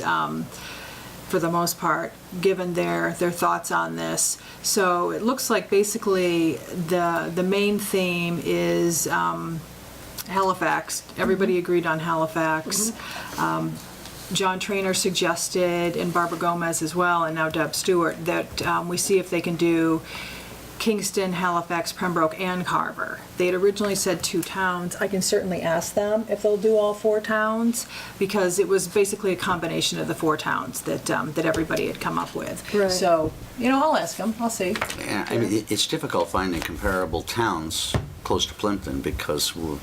um, for the most part, given their, their thoughts on this. So it looks like basically the, the main theme is um, Halifax. Mm-hmm. Everybody agreed on Halifax. Um, John Trainer suggested, and Barbara Gomez as well, and now Deb Stewart, that um, we see if they can do Kingston, Halifax, Pembroke, and Carver. They had originally said two towns. I can certainly ask them if they'll do all four towns, because it was basically a combination of the four towns that, um, that everybody had come up with. Right. So, you know, I'll ask them, I'll see. Yeah, I mean, it- it's difficult finding comparable towns close to Plimpton because we're,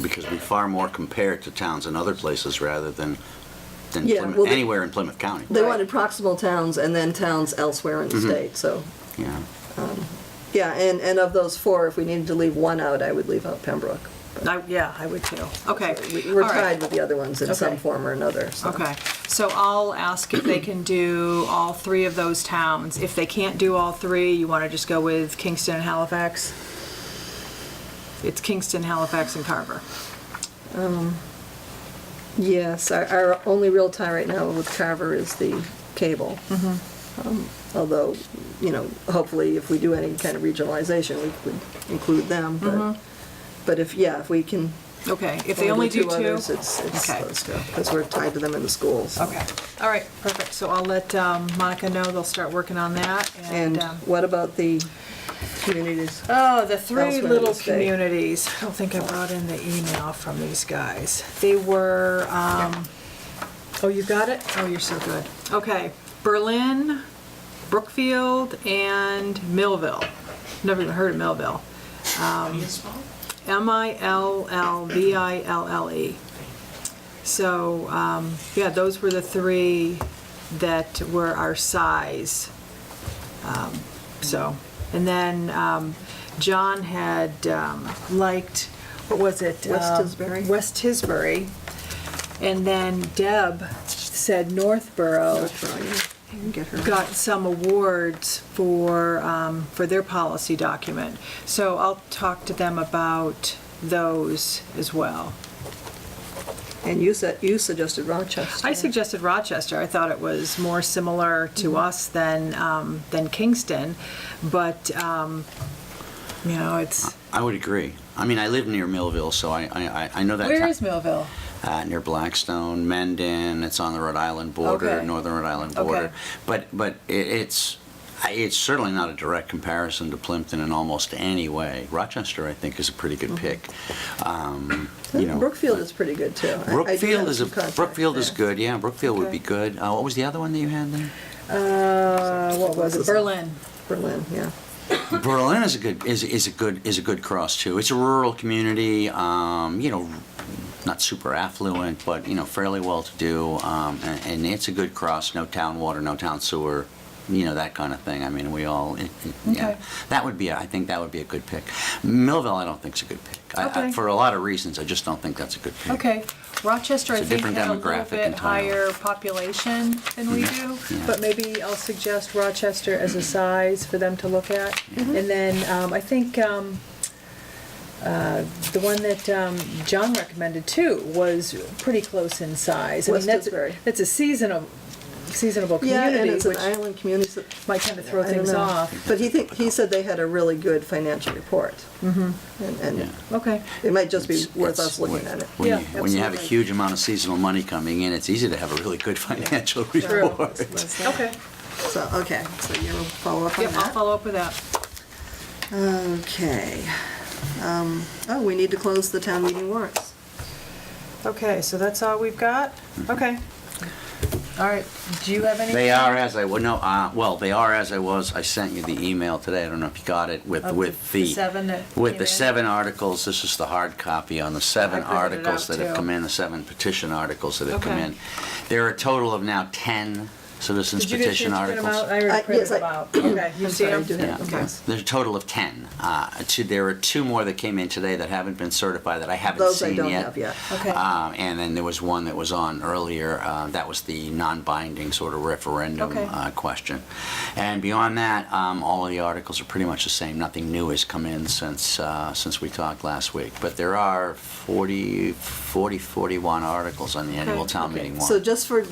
because we far more compare to towns in other places rather than, than Yeah, Plymouth- well, they- anywhere in Plymouth County. They wanted proximal towns and then towns elsewhere in the Mm-hmm. state, so, Yeah. yeah, and, and of those four, if we needed to leave one out, I would leave out Pembroke. I- Yeah, I would too. Okay. We- We're all right. tied with the other ones in some Okay. form or another, so. Okay, so I'll ask if they can do all three of those towns. If they can't do all three, you want to just go with Kingston and Halifax? It's Kingston, Halifax, and Carver. Yes, our, our only real tie right now with Carver is the cable. Mm-hmm. Um, Although, you know, hopefully if we do any kind of regionalization, we would include them, but, but if, yeah, if we can. Okay, Mm-hmm. if they only do two? others, It's, it's Okay. those two, because we're tied to them in the schools. Okay, all right, perfect. So I'll let um, Monica know, they'll start working on that, and, And um, what about the communities? oh, the three Elsewhere in little the state. communities. I don't think I brought in the email from these guys. They were, um, oh, you got it? Oh, you're so good. Okay, Berlin, Brookfield, and Millville. Never even heard of Millville. M-I-L-L-V-I-L-L-E. E. So, um, yeah, those were the three that were our size. Um, So, and then um, John had um, liked, what was it? West Um, Tisbury. West Tisbury. And then Deb said Northborough You can get her. got some awards for, um, for their policy document. So I'll talk to them about those as well. And you said, you suggested Rochester. I suggested Rochester. I thought it was more similar to us than, um, than Kingston, but, um, you know, it's, I would agree. I mean, I live near Millville, so I, I, I- I know that. where town- is Millville? uh, near Blackstone, Mendon. It's on the Rhode Island border, Okay. northern Rhode Island Okay. border. But but it, it's I- it's certainly not a direct comparison to Plimpton in almost any way. Rochester, I think, is a pretty good Mm-hmm. pick. Um, Uh, you know, Brookfield is pretty good, too. I- I do Brookfield have is a, some contacts Brookfield is there. good. Yeah, Brookfield would Okay. be good. Uh, what was the other one that you had there? Uh, what was it? Berlin. Berlin, yeah. Berlin is a good is, is a good is a good cross too. It's a rural community, um, you know, not super affluent, but you know, fairly well to do, um, and, and it's a good cross. No town water, no town sewer, you know that kind of thing. I mean, we all it, it, Okay. yeah. That would be a, I think that would be a good pick. Millville, I don't think is a good pick. I, Okay. I, for a lot of reasons, I just don't think that's a good pick. Okay. Rochester, I It's a think, different had a little demographic bit entirely. higher population than we do, Yeah. but maybe I'll suggest Rochester as a size for them to look at. Mm-hmm. And then um, I think um, uh, the one that um, John recommended too was pretty close in size. I mean, West that's- Tisbury. That's a seasonable, seasonable Yeah, and community, it's an which island community. might kind of throw I don't things know. off. But he think, he said they had a really good financial report. Mm-hmm. And, Yeah. and Okay. it might just be It's- worth it's- us looking when- at it. When, Yeah, you, when you have a absolutely. huge amount of seasonal money coming in, it's easy to have a really good financial True. report. Okay. So, okay, so you'll follow up on Yep, I'll that? follow up with that. Okay. Um, Oh, we need to close the town meeting warrants. Okay, so that's all we've got? Mm-hmm. Okay. All right, do you have any? They are as I was, no, uh, well, they are as I was, I sent you the email today, I don't know if you got it, with, Of with Oh, the the. seven that With came the in? seven articles, this is the hard copy on the seven I printed it articles out, that have too. come in, the seven petition articles that have come Okay. in. There are a total of now 10 citizens Did you get petition to print articles. them out? I Uh, already printed yes, I- them out. Okay, you I'm see sorry, I them? do have them. Okay. yes. There's a total of 10. Uh, two, there are two more that came in today that haven't been certified that I haven't Those I seen don't yet. have yet. Okay. Um, and then there was one that was on earlier. Uh, that was the non-binding sort of referendum Okay. uh, question. And beyond that, um, all of the articles are pretty much the same. Nothing new has come in since uh, since we talked last week. But there are 40, 40 41 articles on the annual Okay. town Okay. meeting warrant. So just for